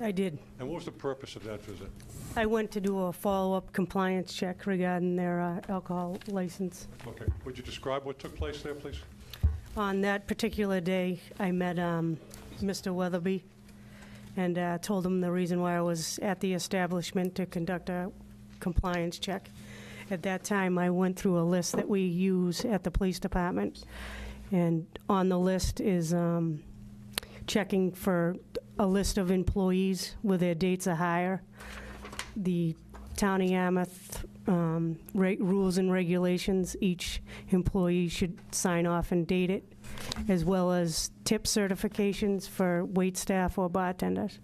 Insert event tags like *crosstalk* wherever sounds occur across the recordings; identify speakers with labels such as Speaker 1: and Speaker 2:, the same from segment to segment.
Speaker 1: I did.
Speaker 2: And what was the purpose of that visit?
Speaker 1: I went to do a follow-up compliance check regarding their uh, alcohol license.
Speaker 2: Okay, would you describe what took place there, please?
Speaker 1: On that particular day, I met um, Mr. Weatherby and uh, told him the reason why I was at the establishment to conduct a compliance check. At that time, I went through a list that we use at the police department, and on the list is um, checking for a list of employees where their dates of hire. The town of Yarmouth um, reg- rules and regulations, each employee should sign off and date it, as well as tip certifications for wait staff or bartenders.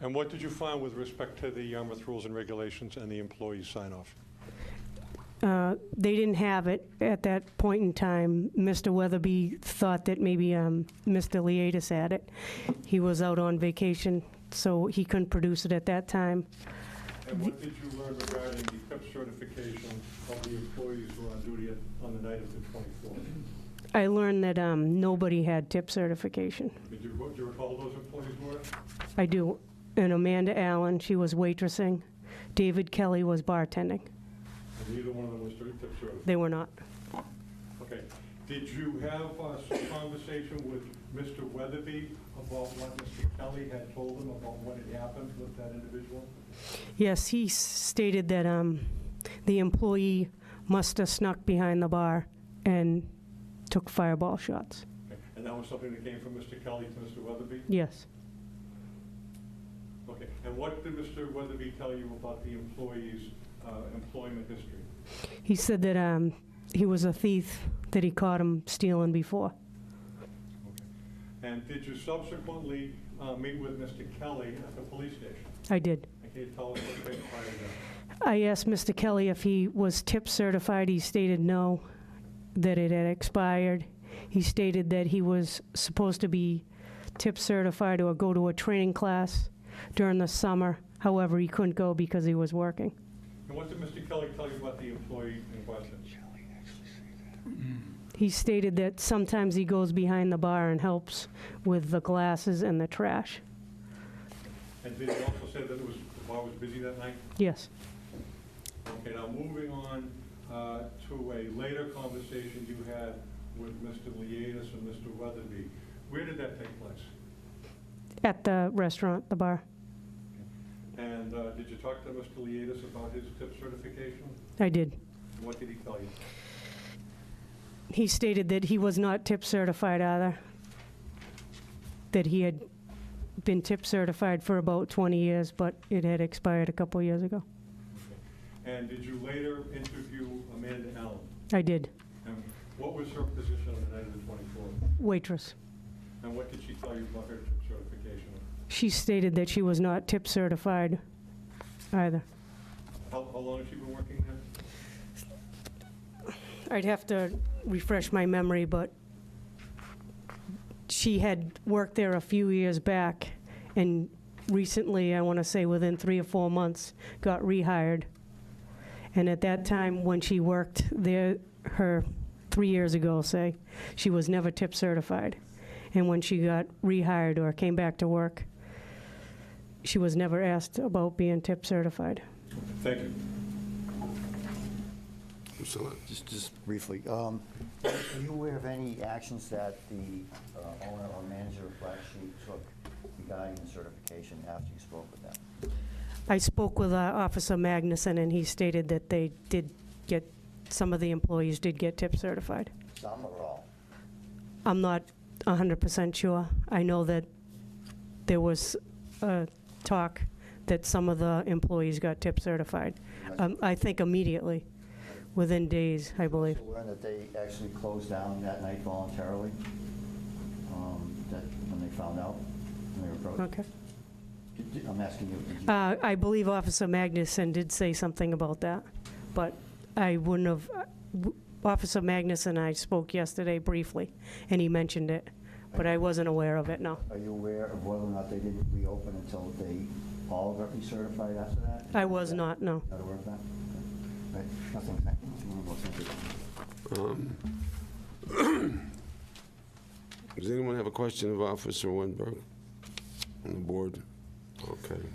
Speaker 2: And what did you find with respect to the Yarmouth rules and regulations and the employee sign-off?
Speaker 1: Uh, They didn't have it at that point in time. Mr. Weatherby thought that maybe um, Mr. Leatis had it. He was out on vacation, so he couldn't produce it at that time.
Speaker 2: And what did you learn regarding the PIP certification of the employees who were on duty at- on the night of the 24th?
Speaker 1: I learned that um, nobody had tip certification.
Speaker 2: Did you, do you recall who those employees were?
Speaker 1: I do. And Amanda Allen, she was waitressing. David Kelly was bartending.
Speaker 2: And neither one of them was cert- PIP certified?
Speaker 1: They were not.
Speaker 2: Okay. Did you have uh, some conversation with Mr. Weatherby about what Mr. Kelly had told him about what had happened with that individual?
Speaker 1: Yes, he s- stated that um, the employee must have snuck behind the bar and took fireball shots.
Speaker 2: Okay. And that was something that came from Mr. Kelly to Mr. Weatherby?
Speaker 1: Yes.
Speaker 2: Okay. And what did Mr. Weatherby tell you about the employee's uh, employment history?
Speaker 1: He said that um, he was a thief, that he caught him stealing before.
Speaker 2: Okay. And did you subsequently uh, meet with Mr. Kelly at the police station?
Speaker 1: I did.
Speaker 2: And can you tell us what transpired there?
Speaker 1: I asked Mr. Kelly if he was tip certified. He stated no, that it had expired. He stated that he was supposed to be tip certified or go to a training class during the summer. However, he couldn't go because he was working.
Speaker 2: And what did Mr. Kelly tell you about the employee in question?
Speaker 1: He stated that sometimes he goes behind the bar and helps with the glasses and the trash.
Speaker 2: And did he also say that it was, the bar was busy that night?
Speaker 1: Yes.
Speaker 2: Okay, now moving on uh, to a later conversation you had with Mr. Leatis and Mr. Weatherby. Where did that take place?
Speaker 1: At the restaurant, the bar.
Speaker 2: And uh, did you talk to Mr. Leatis about his tip certification?
Speaker 1: I did.
Speaker 2: And What did he tell you?
Speaker 1: He stated that he was not tip certified either, that he had been tip certified for about 20 years, but it had expired a couple years ago.
Speaker 2: And did you later interview Amanda Allen?
Speaker 1: I did.
Speaker 2: And what was her position on the night of the 24th?
Speaker 1: Waitress.
Speaker 2: And what did she tell you about her tip certification?
Speaker 1: She stated that she was not tip certified either.
Speaker 2: How how long has she been working there?
Speaker 1: I'd have to refresh my memory, but she had worked there a few years back, and recently, I want to say within three or four months, got rehired. And at that time, when she worked there, her, three years ago, say, she was never tip certified. And when she got rehired or came back to work, she was never asked about being tip certified.
Speaker 2: Thank you.
Speaker 3: Mr. Lynn?
Speaker 4: Just, just briefly, um, are you aware of any actions that the uh, owner or manager of Black Sheep took regarding the certification after you spoke with them?
Speaker 1: I spoke with uh, Officer Magnuson, and he stated that they did get, some of the employees did get tip certified.
Speaker 4: Some or all?
Speaker 1: I'm not 100% sure. I know that there was uh, talk that some of the employees got tip certified. Um, I think immediately, within days, I believe.
Speaker 4: So aware that they actually closed down that night voluntarily, um, that, when they found out, when they were approached?
Speaker 1: Okay.
Speaker 4: Did- did- I'm asking you, did you,
Speaker 1: Uh, I believe Officer Magnuson did say something about that, but I wouldn't have, uh, Officer Magnuson and I spoke yesterday briefly, and he mentioned it, but I wasn't aware of it, no.
Speaker 4: are you aware of whether or not they didn't reopen until they all got recertified after that?
Speaker 1: I was not, no.
Speaker 4: Not aware of that? Okay. Right, nothing, nothing, thank you.
Speaker 3: Um, *clears throat* Does anyone have a question of Officer Winberg on the board? Okay.